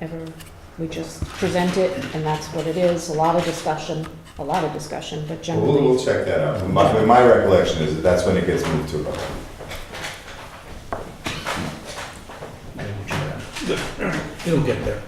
ever, we just present it, and that's what it is, a lot of discussion, a lot of discussion, but Well, We'll, we'll generally, check that out. My, my recollection is that that's when it gets moved to a vote. It'll get there.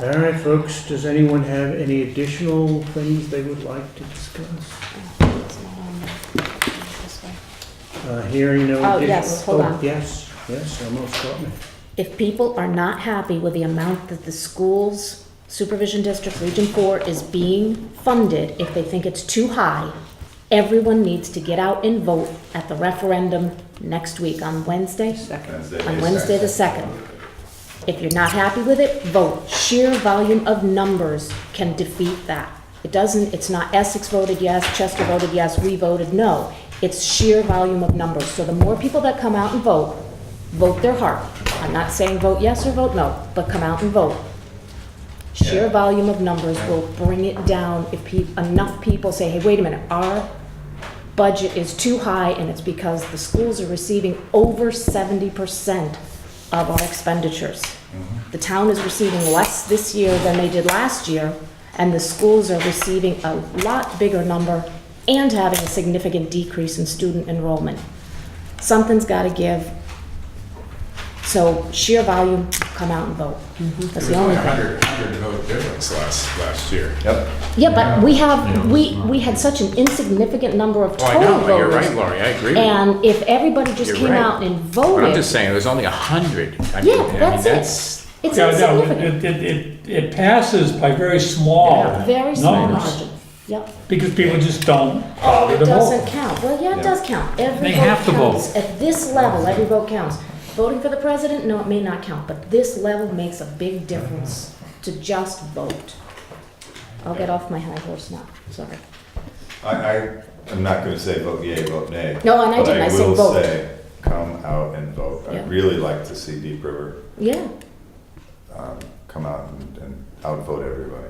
All right, folks, does anyone have any additional things they would like to discuss? it's not on this way. Uh, Hearing no Oh, additional... yes, hold oh, on. Yes, yes, almost got me. If people are not happy with the amount that the school's supervision district, Region Four, is being funded, if they think it's too high, everyone needs to get out and vote at the referendum next week on Wednesday, Wednesday, on May Wednesday the second. If you're not happy with it, vote. Sheer volume of numbers can defeat that. It doesn't, it's not Essex voted yes, Chester voted yes, we voted no. It's sheer volume of numbers. So the more people that come out and vote, vote their heart. I'm not saying vote yes or vote no, but come out and vote. Sheer Yeah. volume of numbers will bring it down if pe- enough people say, hey, wait a minute, our budget is too high and it's because the schools are receiving over seventy percent of our expenditures. The town is receiving less this year than they did last year, and the schools are receiving a lot bigger number and having a significant decrease in student enrollment. Something's gotta give. So sheer volume, come out and vote. That's It the was only only a thing. hundred, hundred vote difference last, last year. Yep. Yeah, but we Yeah. have, we, we had such an insignificant number of Oh, I total know, but you're voters. right, Lori, I agree with you. And if everybody just You're came right. out and But I'm voted, just saying, there's only a hundred. Yeah, that's it. it's Yeah, no, it- insignificant. It, it, it, it passes by very small Yeah, Very numbers. small margin. Yep. Because people just don't Oh, bother it to doesn't vote. count. Well, yeah, it does count. Every They vote have to vote. counts. At this level, every vote counts. Voting for the president, no, it may not count, but this level makes a big difference to just vote. I'll get off my high horse now, sorry. I, I am not gonna say vote yea, vote nay. No, and I didn't. I said But I will vote. say, come out and vote. Yeah. I'd really like to see Deep River, Yeah, um, come out and, and outvote everybody,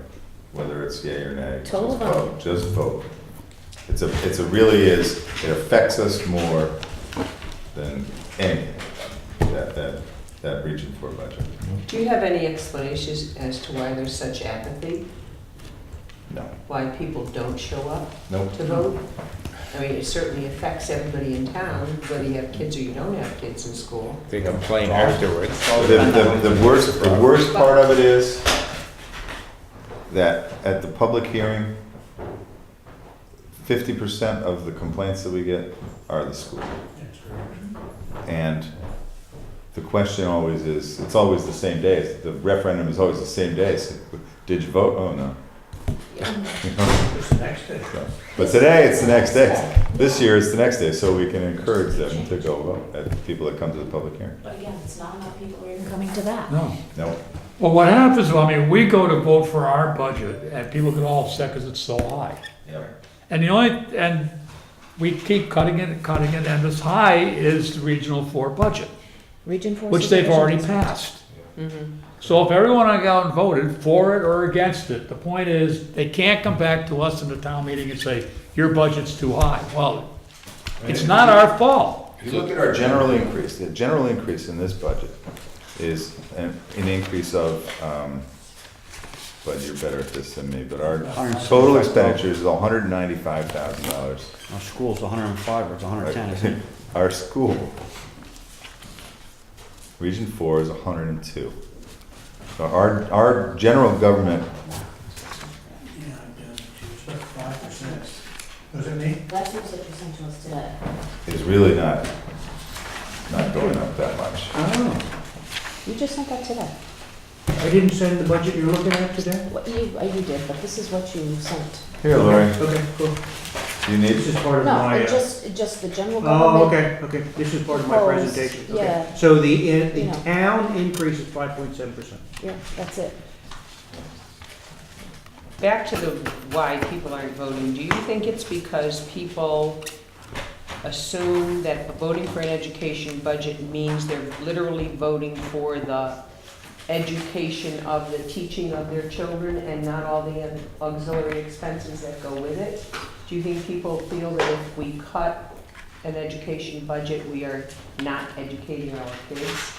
whether it's yea or nay. Total Just vote. Just vote. It's a, it's a really is, it affects us more than any, that, that, that region four budget. Do you have any explanations as to why there's such apathy? No, Why people don't show up nope. to vote? I mean, it certainly affects everybody in town, whether you have kids or you don't have kids in school. They complain afterwards. The, the, the worst, the worst part of it is that at the public hearing, fifty percent of the complaints that we get are the school. And the question always is, it's always the same day, the referendum is always the same day, so, did you vote? Oh, no. But today, it's the next day, this year, it's the next day, so we can encourage them to go vote, uh, people that come to the public hearing. but again, it's not enough people are even coming to that. No. No, Well, what happens, I mean, we go to vote for our budget and people get all upset because it's so high. And the only, and we keep cutting it and cutting it, and as high is the regional four budget, Region four. which they've supervision already is- passed. So if everyone on out and voted for it or against it, the point is, they can't come back to us in the town meeting and say, your budget's too high. Well, it's not our fault. If you look at our general increase, the general increase in this budget is an, an increase of, um, but you're better at this than me, but our total expenditures is hundred and ninety-five thousand dollars. Our school's 105 or it's 110, isn't it? Our school, Region Four is hundred and two. So our, our general government, Yeah, it does, it's like 5%. Does it mean? That's what you sent to us today. is really not, not going up that much. Oh, You just sent that today. I didn't send the budget you're looking at today? What you, uh, you did, but this is what you sent. Here, Lori, Okay, cool. do you need, This is part of No, my, it uh, just, it just the general oh, government. okay, okay, this is part of my Proposed, presentation. Okay. yeah. So the, in- the Yeah. town increase is 5.7%. Yeah, that's it. Back to the why people aren't voting, do you think it's because people assume that voting for an education budget means they're literally voting for the education of the teaching of their children and not all the auxiliary expenses that go with it? Do you think people feel that if we cut an education budget, we are not educating our kids?